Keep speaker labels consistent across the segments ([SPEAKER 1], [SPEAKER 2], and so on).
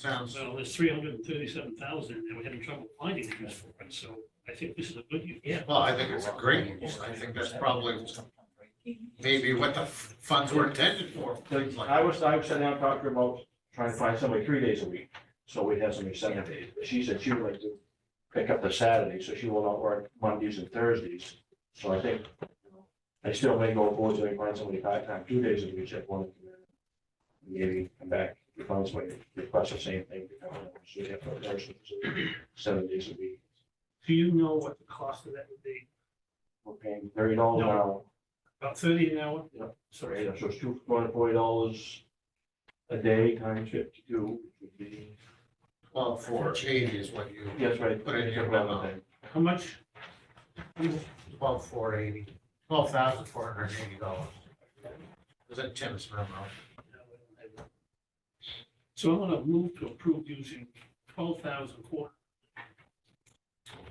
[SPEAKER 1] sounds,
[SPEAKER 2] Well, there's three hundred and thirty-seven thousand, and we're having trouble finding a use for it, so I think this is a good use. Yeah.
[SPEAKER 1] well, I think it's a great use. I think that's probably maybe what the funds were intended for, things like.
[SPEAKER 3] I was, I was sitting down talking about trying to find somebody three days a week, so we'd have somebody seven days. She said she would like to pick up the Saturday, so she will not work Mondays and Thursdays. So I think, you know, I still may go forward and find somebody part-time, two days a week, if one. Maybe come back, if I was waiting, request the same thing, you know, so you have to nurse it, seven days a week.
[SPEAKER 2] Do you know what the cost of that would be?
[SPEAKER 3] We're paying thirty dollars an hour,
[SPEAKER 2] About thirty an hour?
[SPEAKER 3] Yep. so
[SPEAKER 2] Sorry.
[SPEAKER 3] it's two hundred forty dollars a day times fifty-two, would be
[SPEAKER 1] Well, for eighty is what you,
[SPEAKER 3] Yes, right.
[SPEAKER 1] Put it in your memo.
[SPEAKER 2] How much?
[SPEAKER 1] twelve four eighty, twelve thousand four hundred and eighty dollars. Was that Tim's memo?
[SPEAKER 2] So I'm gonna move to approve using twelve thousand four,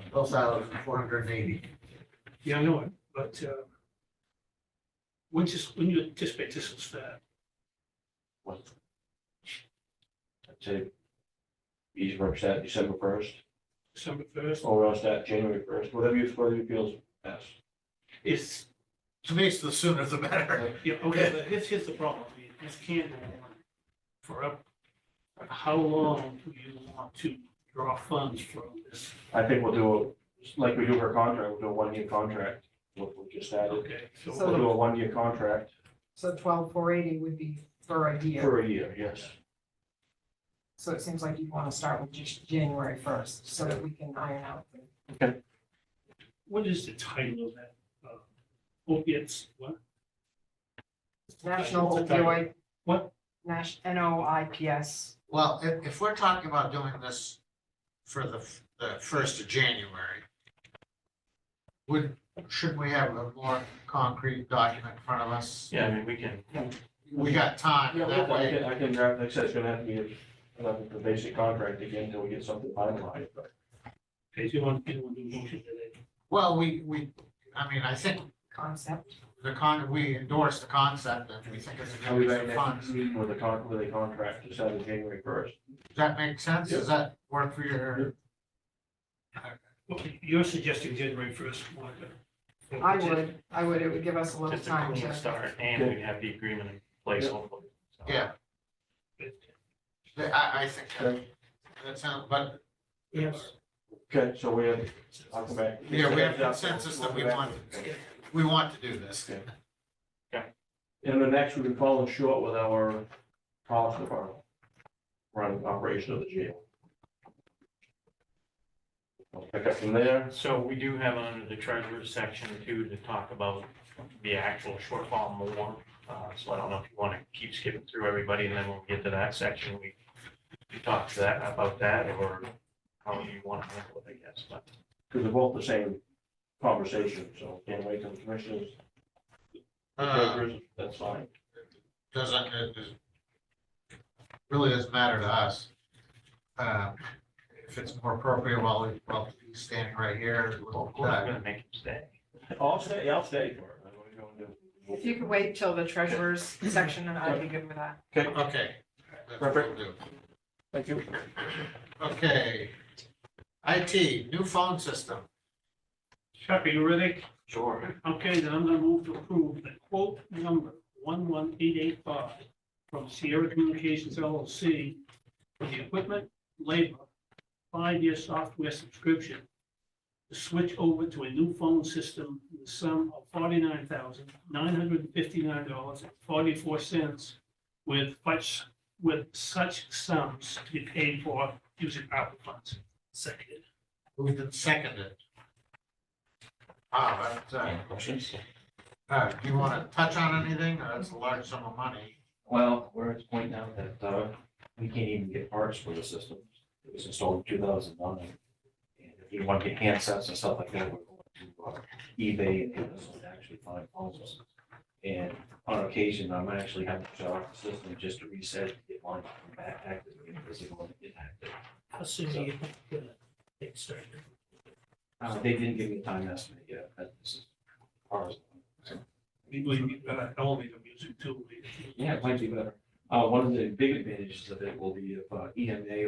[SPEAKER 1] Twelve thousand four hundred and eighty.
[SPEAKER 2] yeah, I know it, but, uh, when just, when you anticipate this uh, will start?
[SPEAKER 3] I'd say each works at December first,
[SPEAKER 2] December first?
[SPEAKER 3] or else that January first, whatever you, whatever you feels best.
[SPEAKER 2] It's
[SPEAKER 1] To me, it's the sooner the better.
[SPEAKER 2] Yeah, okay, but this is the problem, I mean, this can't go on forever. How long do you want to draw funds from this?
[SPEAKER 3] I think we'll do, it like we do for a contract, we'll do a one-year contract, what we just added.
[SPEAKER 2] Okay,
[SPEAKER 3] We'll
[SPEAKER 2] so,
[SPEAKER 3] do a one-year contract
[SPEAKER 4] So twelve four eighty would be for a year,
[SPEAKER 3] for a year, yes.
[SPEAKER 4] so it seems like you want to start with just January first, so that we can iron out. the-
[SPEAKER 2] what is the title of that? Uh, Opiates, what?
[SPEAKER 4] National
[SPEAKER 2] What's the title?
[SPEAKER 4] opioid.
[SPEAKER 2] What?
[SPEAKER 4] Nash, N O I P S,
[SPEAKER 1] Well, if, if we're talking about doing this for the, f- the first of January, would, shouldn't we have a more concrete document in front of us?
[SPEAKER 3] Yeah, I mean, we can.
[SPEAKER 1] We got time,
[SPEAKER 3] Yeah,
[SPEAKER 1] that
[SPEAKER 3] I
[SPEAKER 1] way,
[SPEAKER 3] can, I can draft, like I said, it's gonna have to be a, another basic contract again until we get something finalized, but.
[SPEAKER 2] Okay, do you want, do you want to do a motion today?
[SPEAKER 1] well, we, we, I mean, I think
[SPEAKER 4] concept,
[SPEAKER 1] the con, we endorse the concept and we think it's a good
[SPEAKER 3] I'll be
[SPEAKER 1] use
[SPEAKER 3] back
[SPEAKER 1] of
[SPEAKER 3] next
[SPEAKER 1] funds.
[SPEAKER 3] meeting with a con, with a contract decided January first.
[SPEAKER 1] Does that make sense? Does that work for your?
[SPEAKER 2] Well, You're suggesting January first, Monica.
[SPEAKER 4] I would, I would, it would give us a little
[SPEAKER 5] Just a
[SPEAKER 4] time
[SPEAKER 5] clean
[SPEAKER 4] to,
[SPEAKER 5] start and we have the agreement in place hopefully. so.
[SPEAKER 1] Yeah, I, I think that, that sounds, but,
[SPEAKER 2] Yes.
[SPEAKER 3] Okay, so we have, I'll come back.
[SPEAKER 1] yeah, we have consensus that we want, we want to do this.
[SPEAKER 3] And the next, we've been falling short with our cost of our running operation of the jail. I'll Pick up from there,
[SPEAKER 5] So we do have under the treasurer's section too to talk about the actual shortfall more. Uh, so I don't know if you want to keep skipping through everybody and then when we get to that section, we we talk to that about that or how you want to handle it, I guess, but.
[SPEAKER 3] because they're both the same conversation, so can't wait till the commissioners,
[SPEAKER 1] Uh,
[SPEAKER 3] that's fine.
[SPEAKER 1] doesn't, it is- really doesn't matter to us. Uh, If it's more appropriate while, we- while he's standing right here, we'll,
[SPEAKER 5] Of course, I'm
[SPEAKER 1] uh,
[SPEAKER 5] gonna make him stay.
[SPEAKER 3] I'll stay, I'll stay for it. What are you gonna do?
[SPEAKER 4] if you could wait till the treasurer's section, and I'd be good with that.
[SPEAKER 3] Okay,
[SPEAKER 1] okay. that's what we'll do.
[SPEAKER 3] thank you.
[SPEAKER 1] Okay. IT, new phone system.
[SPEAKER 2] Chuck, are you ready?
[SPEAKER 5] Sure.
[SPEAKER 2] Okay, then I'm gonna move to approve the quote number one one eight eight five from Sierra Communications LLC for the equipment, labor, five-year software subscription to switch over to a new phone system in the sum of forty-nine thousand nine hundred and fifty-nine dollars and forty-four cents with such, with such sums to be paid for using ARPA funds. Seconded.
[SPEAKER 1] Moved and seconded. Ah, but, uh, uh, do you want to touch on anything? Uh, That's a large sum of money.
[SPEAKER 3] Well, we're at the point now that uh, we can't even get parts for the system. It was installed in two thousand nine. And if you want to get handsets and stuff like that, we're going to uh, eBay and Amazon to actually find phones. And on occasion, I'm actually having to shut off the system just to reset it, get mine back active again, because it won't get active.
[SPEAKER 2] How soon
[SPEAKER 3] do you
[SPEAKER 2] think you're gonna get started?
[SPEAKER 3] Uh, They didn't give me a time estimate yet. but this is ours.
[SPEAKER 2] We believe uh, elevator music too.
[SPEAKER 3] Yeah, it might be better. Uh, One of the big advantages of it will be if uh, EMA